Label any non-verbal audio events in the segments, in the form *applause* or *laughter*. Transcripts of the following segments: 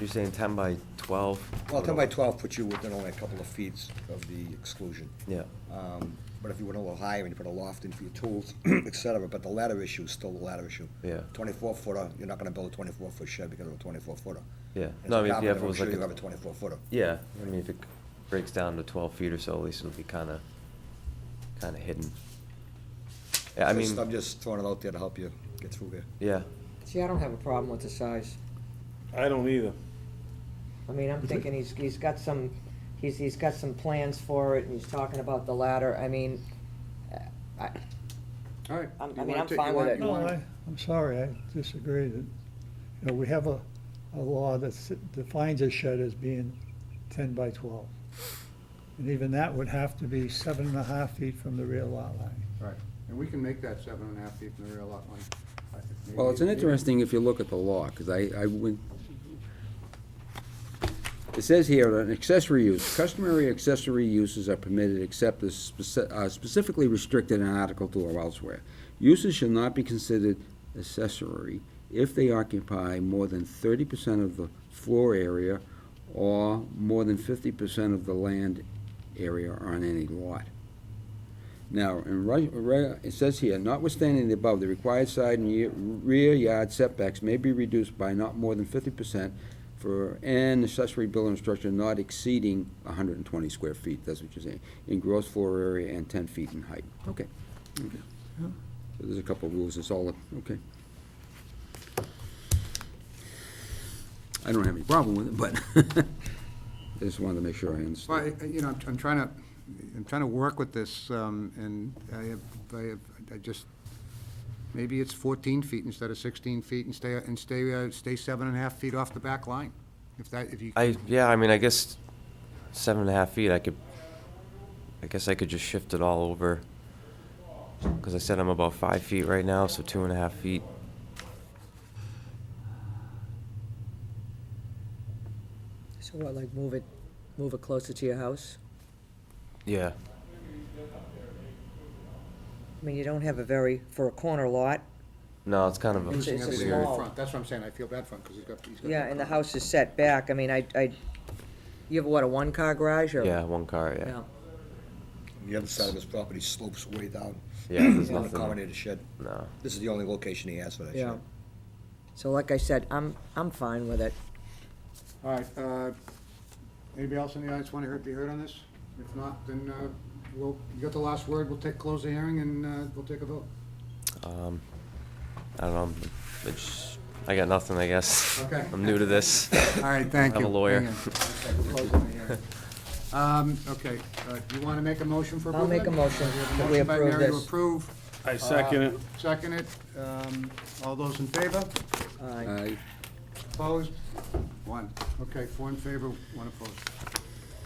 You're saying ten by twelve? Well, ten by twelve puts you within only a couple of feet of the exclusion. Yeah. Um, But if you went a little higher and you put a loft in for your tools, *clears throat* et cetera, but the ladder issue is still the ladder issue. Yeah. Twenty-four footer, you're not gonna build a twenty-four foot shed because of a twenty-four footer. Yeah. And as No, I a mean, if you have- carpenter, it was like I'm sure you a- have a twenty-four footer. Yeah, I mean, if it breaks down to twelve feet or so, at least it'll be kinda, kinda hidden. Yeah, I Just- mean, I'm just throwing it out there to help you get through here. yeah, See, I don't have a problem with the size. I don't either. I mean, I'm thinking he's, he's got some, he's, he's got some plans for it, and he's talking about the ladder, I mean, uh, I, All right. I'm- You I mean, wanna I'm take- you fine with want- it. you No, wanna- I, I'm sorry, I disagree that, you know, we have a, a law that s- defines a shed as being ten by twelve. And even that would have to be seven and a half feet from the rear lot line. Right, and we can make that seven and a half feet from the rear lot line. I think Well, it's an maybe- interesting if you look at the law, because I, I went, it says here, an accessory use, customary accessory uses are permitted except as speci- uh, specifically restricted in Article Two or elsewhere. Uses should not be considered accessory if they occupy more than thirty percent of the floor area or more than fifty percent of the land area on any lot. Now, in re- re- it says here, notwithstanding the above, the required side and ye- rear yard setbacks may be reduced by not more than fifty percent for an accessory building structure not exceeding hundred and twenty square feet, that's what you're saying, in gross floor area and ten feet in height. Okay. Okay. So there's a couple of rules, it's all, okay. I don't have any problem with it, but *laughs* I just wanted to make sure I understood. Well, I- I- you know, I'm- I'm trying to, I'm trying to work with this, um, and I have, I have, I just, maybe it's fourteen feet instead of sixteen feet and stay, and stay, uh, stay seven and a half feet off the back line. If that, if you, I, yeah, I mean, I guess seven and a half feet, I could, I guess I could just shift it all over. Cause I said I'm about five feet right now, so two and a half feet. so what, like, move it, move it closer to your house? Yeah. I mean, you don't have a very, for a corner lot, No, it's kind of a It's- using it's a everything in small- front, that's what I'm saying, I feel bad for him, because he's got, he's got. yeah, and the house is set back, I mean, I, I, you have, what, a one-car garage, or? Yeah, one car, yeah. Yeah. The other side of his property slopes way down. Yeah, there's Won't nothing, accommodate a shed. no. This is the only location he has for that Yeah. shed. So like I said, I'm, I'm fine with it. All right, uh, anybody else in the audience want to be heard on this? If not, then, uh, we'll, you got the last word, we'll take, close the hearing, and, uh, we'll take a vote. Um, I don't know, I'm- I just- I got nothing, I guess. Okay. I'm new to this. All right, thank you. I'm a lawyer. Hang on. Okay, we're closing the hearing. Um, okay, uh, you want to make a motion for I'll approval? make a then? motion We have a that we motion by approve Mary to this. approve. I Uh, second it. Second it. Um, all those in favor? Uh, Aye. I- Opposed? One. Okay, four in favor, one opposed.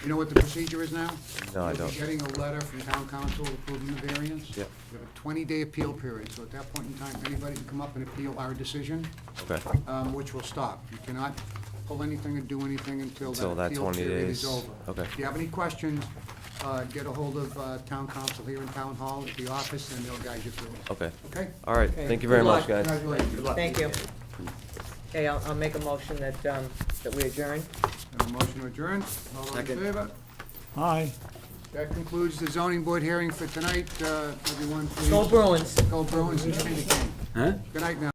You know what the procedure is now? No, I You'll don't. be getting a letter from town council approving the variance. Yep. You have a twenty-day appeal period, so at that point in time, anybody can come up and appeal our decision Okay. um, which will stop. You cannot pull anything or do anything until Until that that appeal 20 period days. is over. Okay. If you have any questions, uh, get ahold of uh, town council here in town hall at the office, and they'll guide you through it. Okay. Okay? All right. Okay. Thank you very Good much, luck. guys. Congratulations. Good luck. Thank you. Okay, I'll, I'll make a motion that, um, that we adjourn. And a motion to adjourn. All those in Second. favor? Aye. That concludes the zoning board hearing for tonight. Uh, Everyone, please. Go Bruins! Go Bruins and Candy Cane. Huh? Good night now.